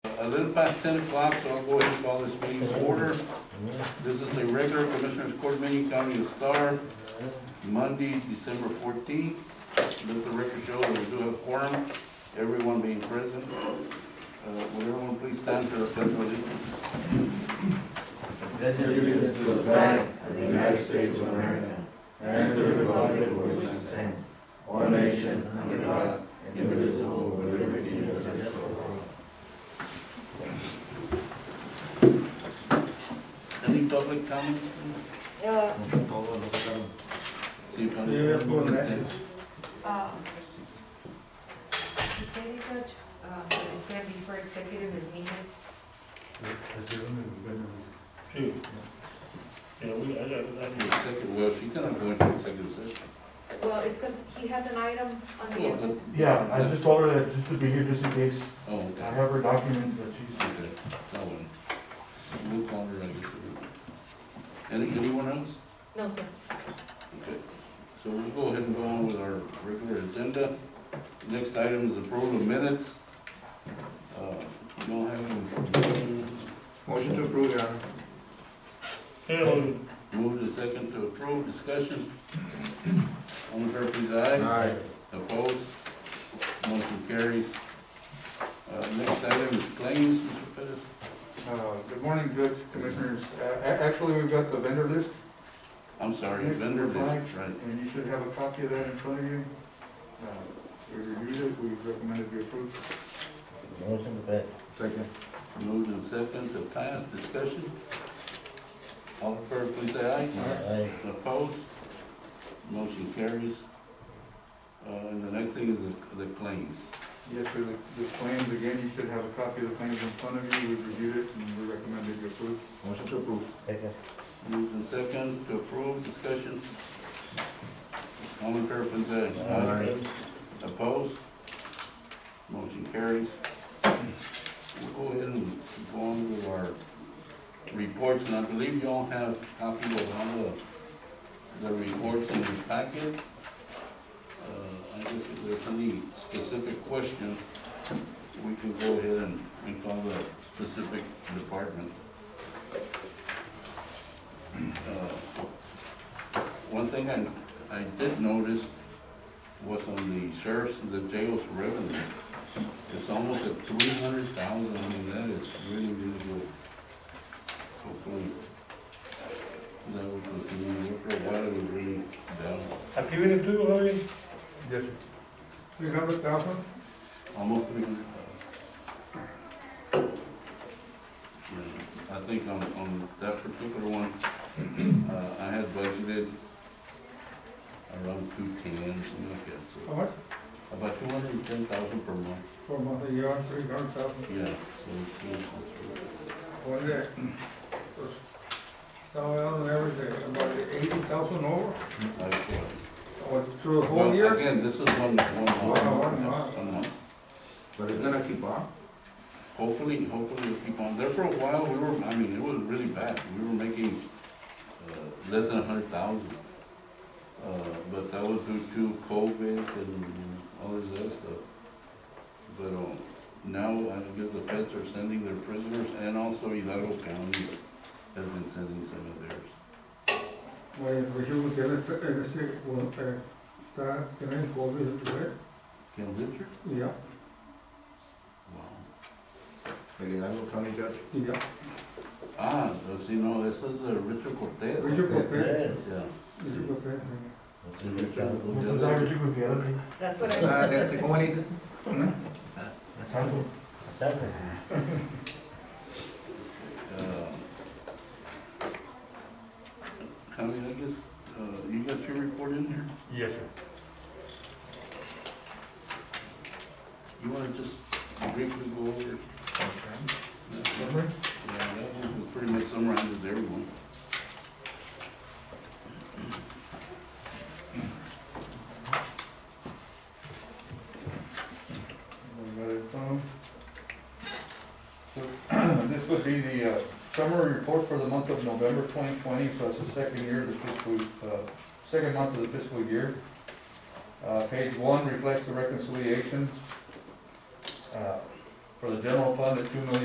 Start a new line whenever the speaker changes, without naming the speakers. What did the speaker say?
little past ten o'clock, so I'll go ahead and call this meeting to order. This is a regular Commissioners Court meeting, County of Star, Monday, December fourteenth. Let the record show that we do have quorum, everyone being present. Uh, Would everyone please stand for the pledge of allegiance?
Allegiance to the flag of the United States of America and to the republic for which it stands, one nation under God, indivisible, with liberty and justice for all.
Any public comment?
Uh,
See if any-
um, Ms. Lady Judge, uh, it's gonna be for executive and meeting.
Yeah, we, I got, I
Your second- Well, she's gonna go into executive session.
Well, it's because he has an item on the
Oh,
agenda.
but-
Yeah, I just told her that just to be here just in case.
Oh,
I
okay.
have her documents that she's.
Okay, that one. We'll call her, I guess. Any, anyone else?
No, sir.
Okay, so we'll go ahead and go on with our regular agenda. Next item is approval of minutes. Uh, Don't have any,
Motion to approve, Your Honor.
move to second to approve, discussion. All in favor, please, aye.
Aye.
Opposed? Motion carries. Uh, next item is claims, Mr. Pettis.
Uh, Good morning, Judge, Commissioners. A- a- Actually, we've got the vendor list,
I'm sorry, vendor list, right?
and you should have a copy of that in front of you. Uh, We reviewed it, we recommended we approve.
Motion to pass.
Second.
Moved and second to pass, discussion. All in favor, please, say aye.
Aye.
Opposed? Motion carries. Uh, And the next thing is the the claims.
Yes, sir, the- the claims, again, you should have a copy of the claims in front of you. We reviewed it, and we recommended you approve.
Motion to approve. Second.
Moved and second to approve, discussion. All in fair and say aye. Opposed? Motion carries. We'll go ahead and go on with our reports, and I believe you all have copies of all the, the reports in your packet. Uh, I guess if there's any specific question, we can go ahead and, and call the specific department. Uh, One thing I, I did notice was on the sheriff's, the jail's revenue. It's almost at three hundred thousand, I mean, that is really, really good. Hopefully, that will continue, for a while it was really down,
Aquí viene tú, Javier.
Yes, sir. Three hundred thousand?
almost three hundred thousand. I think on, on that particular one, uh, I had budgeted around two ten, something like that, so.
How much?
About two hundred and ten thousand per month,
For month, a year, three hundred thousand.
yeah, so it's, it's, it's-
One day. So, on average, about øh, eighty thousand over,
I feel.
or through the
Well, Again, this is one, one month.
Wow, one month.
One month.
But it's gonna keep on?
Hopefully, hopefully it'll keep on, there for a while, we were, I mean, it was really bad, we were making, uh, less than a hundred thousand. Uh, but that was due to COVID and all this other stuff. But, um, now, I guess the feds are sending their prisoners, and also Hidalgo County has been sending some of theirs.
Well, we should get it, uh, see, well, uh, start, can I go with it, right?
Ken Richard?
Yeah,
Wow.
yeah.
Ah, so see, no, this is uh, Richard Cortez.
We should prepare,
Yes.
Yeah.
we should prepare.
Motion to approve.
What was I gonna do with the other thing?
That's what I,
Handle.
Second.
Uh, Connie, I guess, uh, you got your report in here?
Yes, sir.
You wanna just briefly go over? that one?
Remember?
Yeah, that one was pretty much summarizes everyone.
So, This would be the uh, summary report for the month of November 2020, so it's the second year of the fiscal, uh, second month of the fiscal year. Uh, Page one reflects the reconciliations uh, for the general fund at two million.